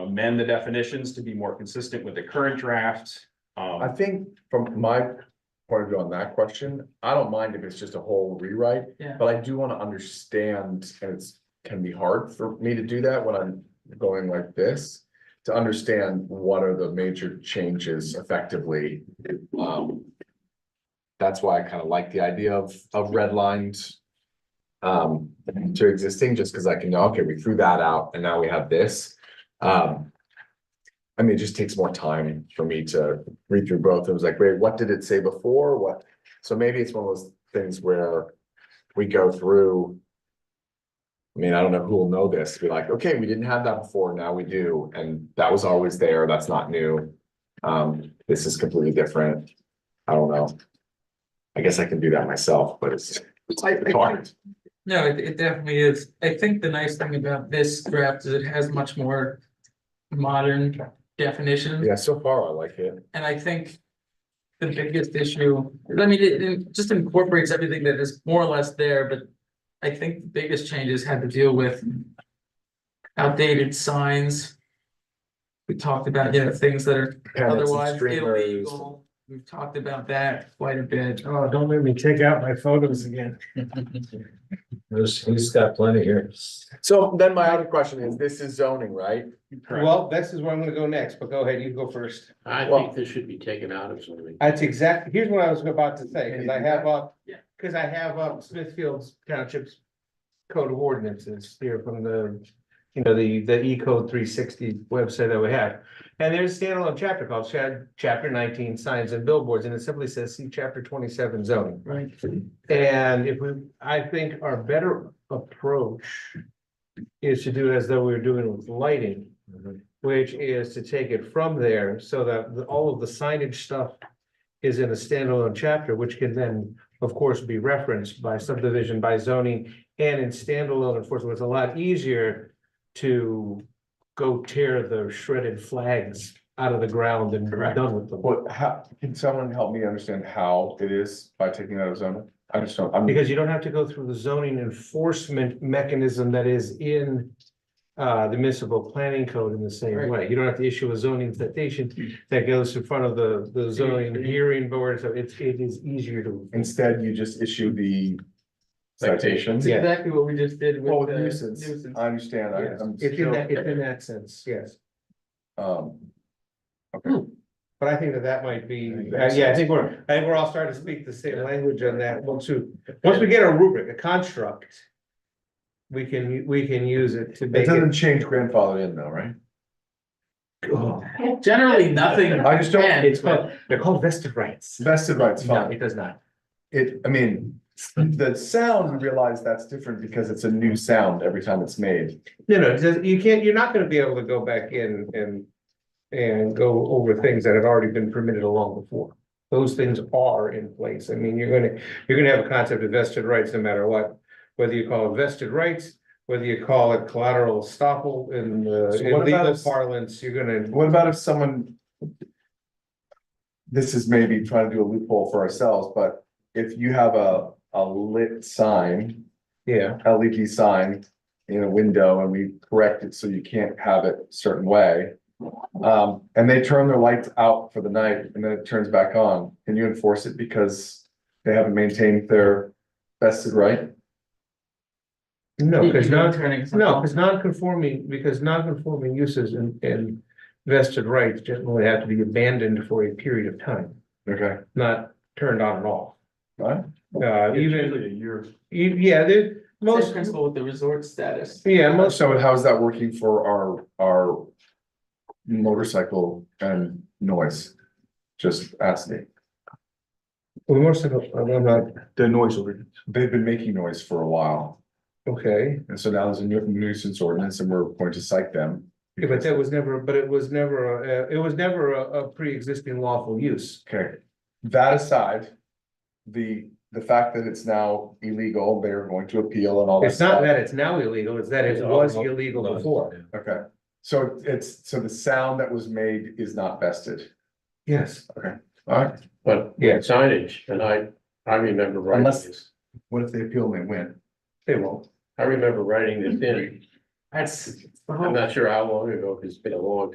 amend the definitions to be more consistent with the current draft. I Um, think from my point of view on that question, I don't mind if it's just a whole rewrite. Yeah. But I do wanna understand, and it's, can be hard for me to do that when I'm going like this. To understand what are the major changes effectively, um. That's why I kinda like the idea of, of redlined. Um, to existing, just cause I can know, okay, we threw that out and now we have this, um. I mean, it just takes more time for me to read through both. It was like, wait, what did it say before? What? So maybe it's one of those things where we go through. I mean, I don't know who will know this, be like, okay, we didn't have that before, now we do, and that was always there, that's not new. Um, this is completely different. I don't know. I guess I can do that myself, but it's it's hard. No, it, it definitely is. I think the nice thing about this draft is it has much more modern definitions. Yeah, so far I like it. And I think the biggest issue, I mean, it, it just incorporates everything that is more or less there, but I think the biggest changes had to deal with outdated signs. We talked about, you know, things that are Pennants and otherwise streamers. illegal. We've talked about that quite a bit. Oh, don't make me take out my photos again. There's, he's got plenty here. So then my other question is, this is zoning, right? Correct. Well, this is where I'm gonna go next, but go ahead, you go first. I Well- think this should be taken out of zoning. That's exactly, here's what I was about to say, cause I have up. Yeah. Cause I have up Smithfield's Township's Code of Ordinances here from the, you know, the, the E code three sixty website that we have. And there's a standalone chapter called Chad, chapter nineteen signs and billboards, and it simply says, see chapter twenty-seven zoning. Right. And if we, I think our better approach is to do as though we were doing with lighting. Which is to take it from there so that the- all of the signage stuff is in a standalone chapter, which can then, of course, be referenced by subdivision, by zoning. And in standalone enforcement, it's a lot easier to go tear the shredded flags out of the ground and be done with them. What, how, can someone help me understand how it is by taking that out of zoning? I just don't, I'm, Because you don't have to go through the zoning enforcement mechanism that is in. Uh, the municipal planning code in the same Right. way. You don't have to issue a zoning citation that goes in front of the, the zoning hearing board, so it's, it is easier to. instead you just issue the citation. It's Yeah. exactly what we just did Well, with the with nuisance, nuisance. I understand, I, Yes, I'm It's in that, it's in still, that sense, yes. um, But I think that that might be, Yeah. uh, yeah, I think we're, I think we're all starting to speak the same language on that one too. Once we get a rubric, a construct. We can, we can use it to it make doesn't it. change grandfather in though, right? Oh, Generally, nothing. I just don't, bad, It's but- called, they're called vested rights. vested rights, No, it fine, does not. it, I mean, the sound, you realize that's different because it's a new sound every time it's made. No, no, it does- you can't, you're not gonna be able to go back in and. And go over things that have already been permitted long before. Those things are in place. I mean, you're gonna, you're gonna have a concept of vested rights no matter what. Whether you call it vested rights, whether you call it collateral estoppel in the So in what about legal if- parlance, you're gonna. What about if someone? This is maybe trying to do a loophole for ourselves, but if you have a, a lit sign, Yeah, LED sign in a window and we correct it so you can't have it a certain way. Um, and they turn their lights out for the night and then it turns back on. Can you enforce it because they haven't maintained their vested right? no, You- because you're non, turning something no, off. because non-conforming, because non-conforming uses and and. Vested rights generally have to be abandoned for a period of time. Okay, not turned on and off. right? Uh, even, e- yeah, they, Same most, principle with the resort status. yeah, most, So how's that working for our, our motorcycle and noise? Just asking. well, most of, them- I'm not, The noise ordinance. They've been making noise for a while. okay. And so now there's a nu- nuisance ordinance and we're going to cite them. Yeah, But that was never, but it was never, a- uh, it was never a, a pre-existing lawful use. Okay, that aside, the, the fact that it's now illegal, they're going to appeal and all that It's not stuff. that it's now illegal, it's that it was illegal before. Okay, so it's, so the sound that was made is not vested, Yes. alright? But Yeah. with signage, and I, I remember writing Unless- this, What if they appeal and they win? They won't. I remember writing this in. That's. the whole- I'm not sure how long ago, 'cause it's been a long